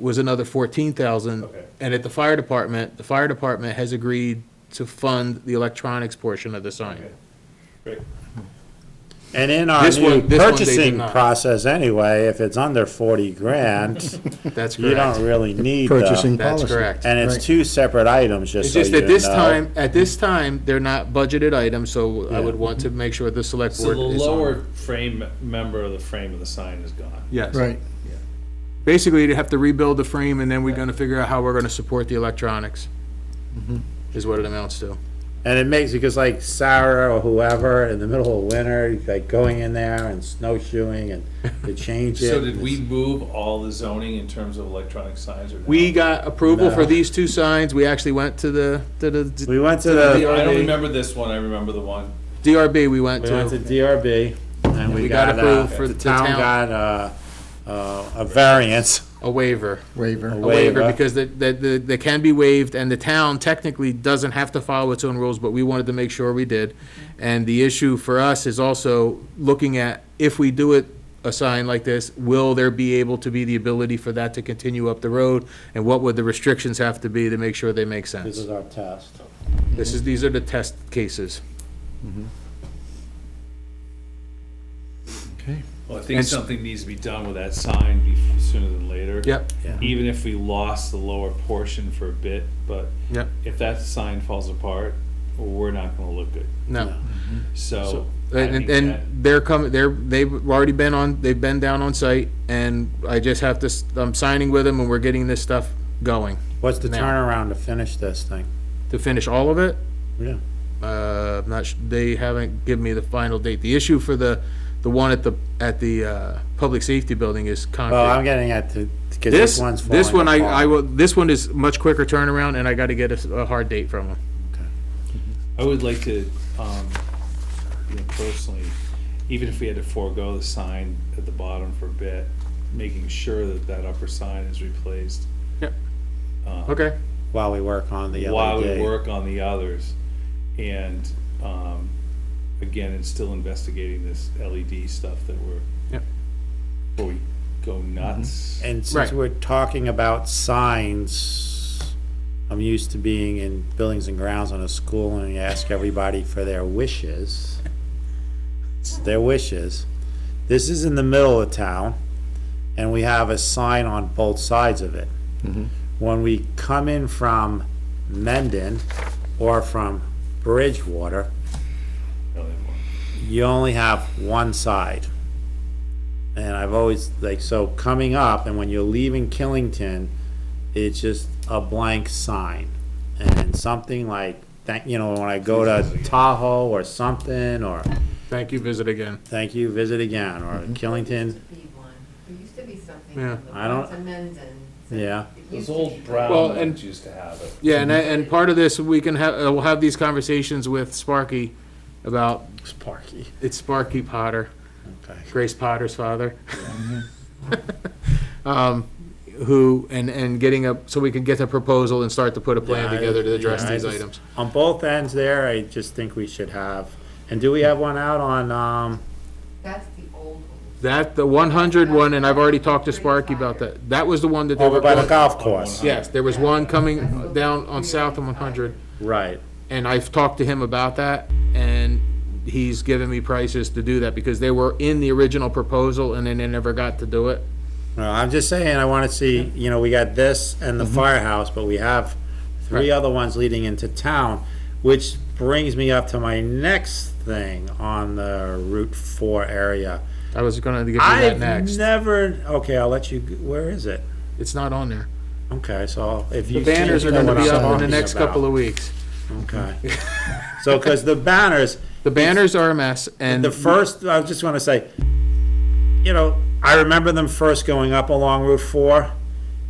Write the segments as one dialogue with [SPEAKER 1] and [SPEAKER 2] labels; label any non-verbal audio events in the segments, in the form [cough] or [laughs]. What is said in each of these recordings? [SPEAKER 1] was another fourteen thousand.
[SPEAKER 2] Okay.
[SPEAKER 1] And at the fire department, the fire department has agreed to fund the electronics portion of the sign.
[SPEAKER 2] Okay. Great.
[SPEAKER 3] And in our
[SPEAKER 1] This one-
[SPEAKER 3] new
[SPEAKER 1] this one they did
[SPEAKER 3] purchasing
[SPEAKER 1] not.
[SPEAKER 3] process anyway, if it's under forty [laughs] grand,
[SPEAKER 1] That's
[SPEAKER 3] you
[SPEAKER 1] correct.
[SPEAKER 3] don't really need
[SPEAKER 4] Purchasing
[SPEAKER 3] the,
[SPEAKER 1] That's
[SPEAKER 4] policy.
[SPEAKER 1] correct.
[SPEAKER 3] and
[SPEAKER 4] Right.
[SPEAKER 3] it's two separate items, just
[SPEAKER 1] It's
[SPEAKER 3] so you
[SPEAKER 1] just
[SPEAKER 3] know.
[SPEAKER 1] that this time, at this time, they're not budgeted items, so I
[SPEAKER 3] Yeah.
[SPEAKER 1] would want to make sure the select
[SPEAKER 2] So
[SPEAKER 1] board
[SPEAKER 2] the
[SPEAKER 1] is on.
[SPEAKER 2] lower frame, member of the frame of the sign is gone.
[SPEAKER 1] Yes.
[SPEAKER 4] Right.
[SPEAKER 1] Basically, to have to rebuild the frame, and then we're gonna figure out how we're gonna support the electronics,
[SPEAKER 3] Mm-hmm.
[SPEAKER 1] is what it amounts to.
[SPEAKER 3] And it makes, because like Sarah or whoever, in the middle of winter, like going in there and snowshoeing and [laughs] to change it.
[SPEAKER 2] So did we move all the zoning in terms of electronic signs or? no?
[SPEAKER 1] We got approval for
[SPEAKER 3] No.
[SPEAKER 1] these two signs, we actually went to the, to the
[SPEAKER 3] We went to
[SPEAKER 1] the-
[SPEAKER 3] the,
[SPEAKER 2] I don't
[SPEAKER 1] DRB.
[SPEAKER 2] remember this one, I remember the one.
[SPEAKER 1] DRB, we went
[SPEAKER 3] we went to
[SPEAKER 1] to.
[SPEAKER 3] DRB, and
[SPEAKER 1] We
[SPEAKER 3] we
[SPEAKER 1] got
[SPEAKER 3] got, uh,
[SPEAKER 1] approved for
[SPEAKER 3] the
[SPEAKER 1] the
[SPEAKER 3] town
[SPEAKER 1] town.
[SPEAKER 3] got, uh, uh, a variance.
[SPEAKER 1] A waiver. A
[SPEAKER 4] Waiver.
[SPEAKER 1] waiver,
[SPEAKER 3] Waiver.
[SPEAKER 1] because they, they, they they can be waived, and the town technically doesn't have to follow its own rules, but we wanted to make sure we did. And the issue for us is also looking at, if we do it, a sign like this, will there be able to be the ability for that to continue up the road? And what would the restrictions have to be to make sure they make
[SPEAKER 3] This
[SPEAKER 1] sense?
[SPEAKER 3] is our test.
[SPEAKER 1] This is, these are the test cases.
[SPEAKER 4] Okay.
[SPEAKER 2] Well, I think
[SPEAKER 1] And s-
[SPEAKER 2] something needs to be done with that sign bef- sooner than later.
[SPEAKER 1] Yep,
[SPEAKER 2] Even if we lost the lower portion for a bit, but
[SPEAKER 1] yep,
[SPEAKER 2] if that sign falls apart, we're not gonna look good.
[SPEAKER 1] no.
[SPEAKER 2] So. I think
[SPEAKER 1] And,
[SPEAKER 2] that-
[SPEAKER 1] and they're coming, they're, they've already been on, they've been down on site, and I just have to, s- I'm signing with them, and we're getting this stuff going.
[SPEAKER 3] What's the
[SPEAKER 1] Now.
[SPEAKER 3] turnaround to finish this thing?
[SPEAKER 1] to finish all of it.
[SPEAKER 3] Yeah.
[SPEAKER 1] Uh, I'm not, su- they haven't given me the final date. The issue for the, the one at the, at the, uh, public safety building is
[SPEAKER 3] Well, Oh, I'm
[SPEAKER 1] concrete.
[SPEAKER 3] getting at the, because
[SPEAKER 1] This,
[SPEAKER 3] this one's falling
[SPEAKER 1] this one, I, I
[SPEAKER 3] apart.
[SPEAKER 1] will, this one is much quicker turnaround and I gotta get a, s- a hard date from them.
[SPEAKER 2] I would like to, um, you know, personally, even if we had to forego the sign at the bottom for a bit, making sure that that upper sign is replaced.
[SPEAKER 1] Yep.
[SPEAKER 2] uh,
[SPEAKER 1] Okay,
[SPEAKER 3] While we work on the
[SPEAKER 2] While we
[SPEAKER 3] LED.
[SPEAKER 2] work on the others, and, um, again, it's still investigating this LED stuff that we're.
[SPEAKER 1] Yep.
[SPEAKER 2] Before we go nuts.
[SPEAKER 3] Mm-hmm. And
[SPEAKER 1] Right.
[SPEAKER 3] since we're talking about signs, I'm used to being in buildings and grounds on a school and you ask everybody for their wishes. It's Their wishes. This is in the middle of town and we have a sign on both sides of it.
[SPEAKER 1] Mm-hmm.
[SPEAKER 3] When we come in from Mendon or from Bridgewater,
[SPEAKER 2] No, they won't.
[SPEAKER 3] you only have one side. And I've always, like, so coming up, and when you're leaving Killington, it's just a blank sign. And something like, thank, you know, when I go to Tahoe or something, or
[SPEAKER 1] thank you, visit again.
[SPEAKER 3] thank you, visit again, or Killington,
[SPEAKER 5] used to be one. There used to be something.
[SPEAKER 1] Yeah.
[SPEAKER 5] on the
[SPEAKER 3] I don't-
[SPEAKER 5] Plaza Mendon. So
[SPEAKER 3] yeah.
[SPEAKER 5] it
[SPEAKER 2] Those
[SPEAKER 5] used to be-
[SPEAKER 2] old
[SPEAKER 1] Well,
[SPEAKER 2] brown
[SPEAKER 1] and-
[SPEAKER 2] ones used to have it.
[SPEAKER 1] Yeah, and, I- and part of this, we can have, uh, we'll have these conversations with Sparky about,
[SPEAKER 3] Sparky.
[SPEAKER 1] it's Sparky Potter.
[SPEAKER 3] Okay.
[SPEAKER 1] Grace Potter's father.
[SPEAKER 3] Mm-hmm.
[SPEAKER 1] [laughs] Um, who, and, and getting a, so we can get a proposal and start to put a plan
[SPEAKER 3] Yeah, I-
[SPEAKER 1] together to address
[SPEAKER 3] yeah, I
[SPEAKER 1] these
[SPEAKER 3] just-
[SPEAKER 1] items.
[SPEAKER 3] On both ends there, I just think we should have, and do we have one out on, um,
[SPEAKER 5] That's the old one.
[SPEAKER 1] That, the one hundred one, and I've already talked to Sparky about that, that was the one that they
[SPEAKER 3] over
[SPEAKER 1] were.
[SPEAKER 3] by the golf course?
[SPEAKER 1] Yes, there was one coming down on south of one hundred,
[SPEAKER 3] Right.
[SPEAKER 1] and I've talked to him about that, and he's given me prices to do that, because they were in the original proposal, and then they never got to do it.
[SPEAKER 3] No, I'm just saying, I wanna see, you know, we got this and
[SPEAKER 1] Mm-hmm.
[SPEAKER 3] the firehouse, but we have three other ones leading into town, which brings me up to my next thing on the Route Four area.
[SPEAKER 1] I was gonna give you that
[SPEAKER 3] I've
[SPEAKER 1] next,
[SPEAKER 3] never, okay, I'll let you, g- where is it?
[SPEAKER 1] it's not on there.
[SPEAKER 3] Okay, so if you.
[SPEAKER 1] The banners are gonna be up in the next couple of weeks.
[SPEAKER 3] Okay.
[SPEAKER 1] [laughs]
[SPEAKER 3] So, cause the banners,
[SPEAKER 1] The banners are a mess, and
[SPEAKER 3] The first, I just want to say, you know, I remember them first going up along Route Four,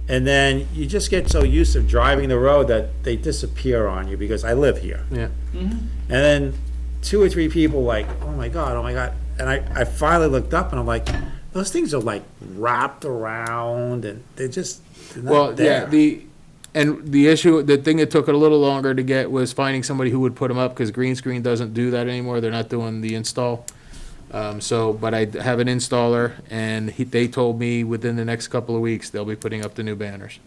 [SPEAKER 3] and then you just get so used to driving the road that they disappear on you because I live here.
[SPEAKER 1] Yeah.
[SPEAKER 3] And then two or three people like, oh my god, oh my god, and I, I finally looked up and I'm like, those things are like wrapped around and they're just they're not
[SPEAKER 1] Well, yeah,
[SPEAKER 3] there.
[SPEAKER 1] the, and the issue, the thing that took it a little longer to get was finding somebody who would put them up, because green screen doesn't do that anymore, they're not doing the install. Um, so, but I have an installer and he, they told me within the next couple of weeks, they'll be putting up the new banners.